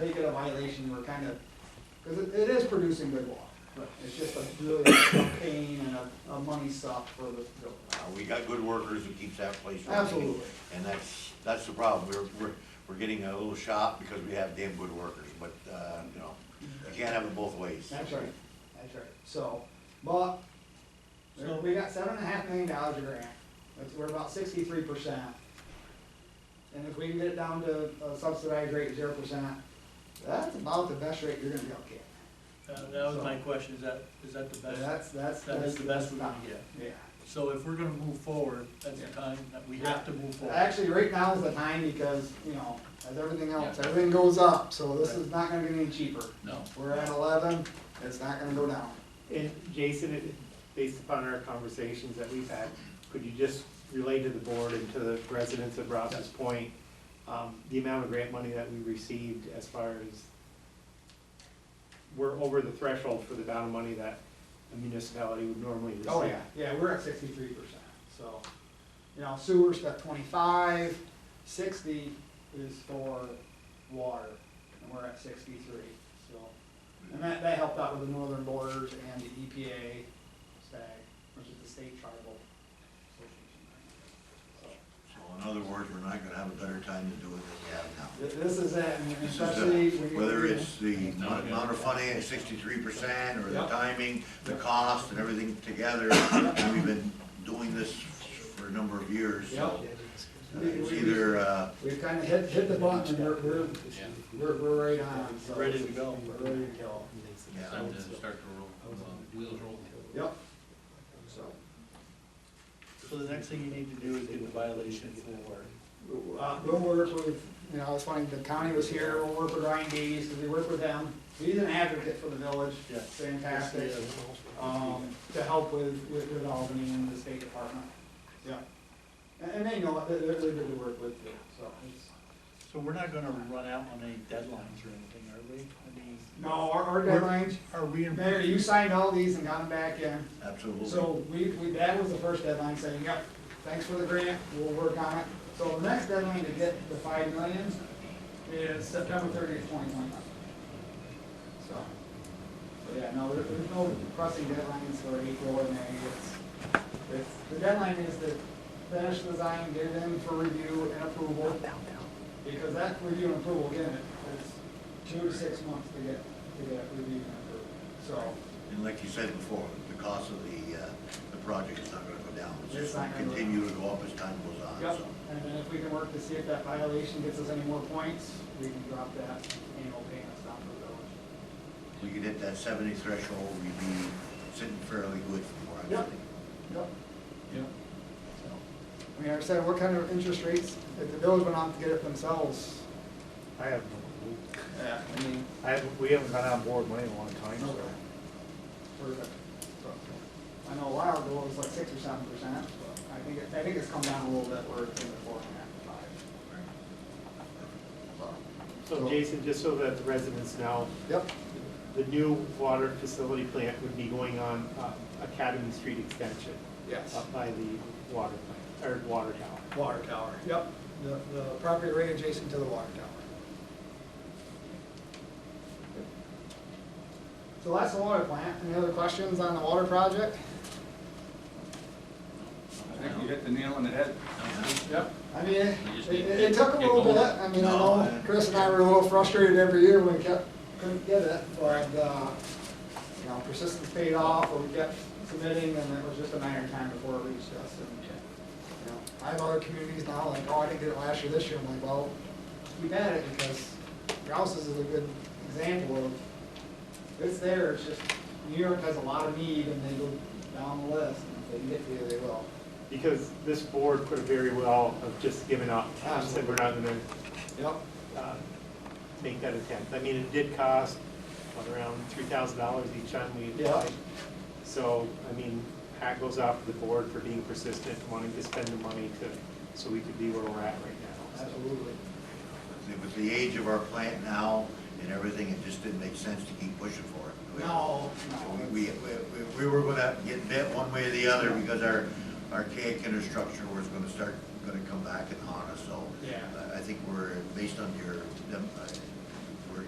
make it a violation, we're kind of, because it, it is producing good water. But it's just a really a pain and a, a money suck for the Uh, village. we got good workers who keeps that place running. Absolutely. And that's, that's the problem, we're, we're, we're getting a little shot because we have damn good workers, but, uh, you know, you can't have it both ways. That's right, that's right. So, but, there- we got seven and a half million dollars of grant, that's, we're about sixty-three percent. And if we can get it down to a subsidized rate, zero percent, that's about the best rate you're gonna be able to get. Uh, That was my question, is that, is that the best? That's, that's. That is the best we're gonna get. Yeah. So if we're gonna move forward, that's the time that we have to move forward. Actually, right now is the time because, you know, as everything else, everything goes up, so this is not gonna get any cheaper. No. We're at eleven, it's not gonna go down. And Jason, it- based upon our conversations that we've had, could you just relay to the board and to the residents of Rouse's Point, um, the amount of grant money that we received as far as we're over the threshold for the amount of money that a municipality would normally receive? Oh, yeah, yeah, we're at sixty-three percent, so, you know, sewer's got twenty-five, sixty is for water, and we're at sixty-three, so. And that, that helped out with the Northern Borders and the E EPA SAG, which is the state tribal association. So in other words, we're not gonna have a better time to do it than we have now. So, thi- This is it, and This is the- especially. when you- Whether it's the amount of funding at sixty-three percent, or the Yep. timing, the cost, and everything together, and we've been doing this for a number of years, so. Yep. uh, It's either, uh, We've kind of hit, hit the button, and we're, we're, we're, we're right on, so. Ready to go. We're ready to go. yeah. Time to start to roll, uh, wheels rolling. Yep. So, So the next thing you need to do is get the violation for, uh, we'll work with, you know, it's funny, the county was here, we'll work with Ryan Dees, because we work with them. He's an advocate for the village, Yeah. fantastic, um, to help with, with, with Albany and the state department. Yeah. And, and they know, it. they're, they're good to work with, too, so. it's- so we're not gonna run out on any deadlines or anything, are we? I mean, No, our, our deadlines, Are we in? Mayor, you signed all these and got them back in. absolutely. So we, we, that was the first deadline, saying, yep, thanks for the grant, we'll work on it. So the next deadline to get the five million is September thirtieth, twenty twenty-one. So, so yeah, no, there- there's no pressing deadlines for April or May, it's, it's, the deadline is to finish the design, get it in for review and approval. Because that review and approval, again, it's two to six months to get, to get it reviewed and approved, so. And like you said before, the cost of the, uh, the project is not gonna go down. It's It's just not gonna gonna go continue to go up as time goes on, Yep, so. and then if we can work to see if that violation gets us any more points, we can drop that annual payments down to the village. If we could hit that seventy threshold, we'd be sitting fairly good for more. Yep. Yep. Yep. I mean, like I said, what kind of interest rates, if the village went out to get it themselves? I have, Yeah. I mean, I have, we haven't gone on board money in a long time, no, so. for, so, I know a while ago it was like six or seven percent, but I think, it- I think it's come down a little bit, we're in the four and a half, to five. So Jason, just so that the residents know, Yep, the new water facility plant would be going on uh, Academy Street Extension. yes. up by the water plant, or water tower. Water tower. Yep, the, the property right adjacent to the water tower. So that's the water plant. Any other questions on the water project? I think you hit the nail on the head. Yep. I mean, it, We just it need to it took a get little bit, going. I mean, I No, know I- Chris and I were a little frustrated every year when we kept, couldn't get it, but, uh, you know, persistence paid off, or we kept submitting, and it was just a matter of time before it reached us, and, you know, I have other communities now, like, oh, I didn't get it last year, this year, I'm like, well, we've had it, because Rouse's is a good example of, it's there, it's just, New York has a lot of need, and they go down the list, and if they can get to you, they will. Because this board could have very well have just given up, and said we're not gonna Yep. uh, make that attempt. I mean, it did cost, what, around three thousand dollars each time we Yeah. applied. So, I mean, hat goes off to the board for being persistent, wanting to spend the money to, so we could be where we're at right now. So, Absolutely. With the age of our plant now and everything, it just didn't make sense to keep pushing for it. No, So no. We, we, we- we were gonna get bit one way or the other because our archaic infrastructure was gonna start, gonna come back and haunt us, so. Yeah. I- I think we're, based on your, dem- uh,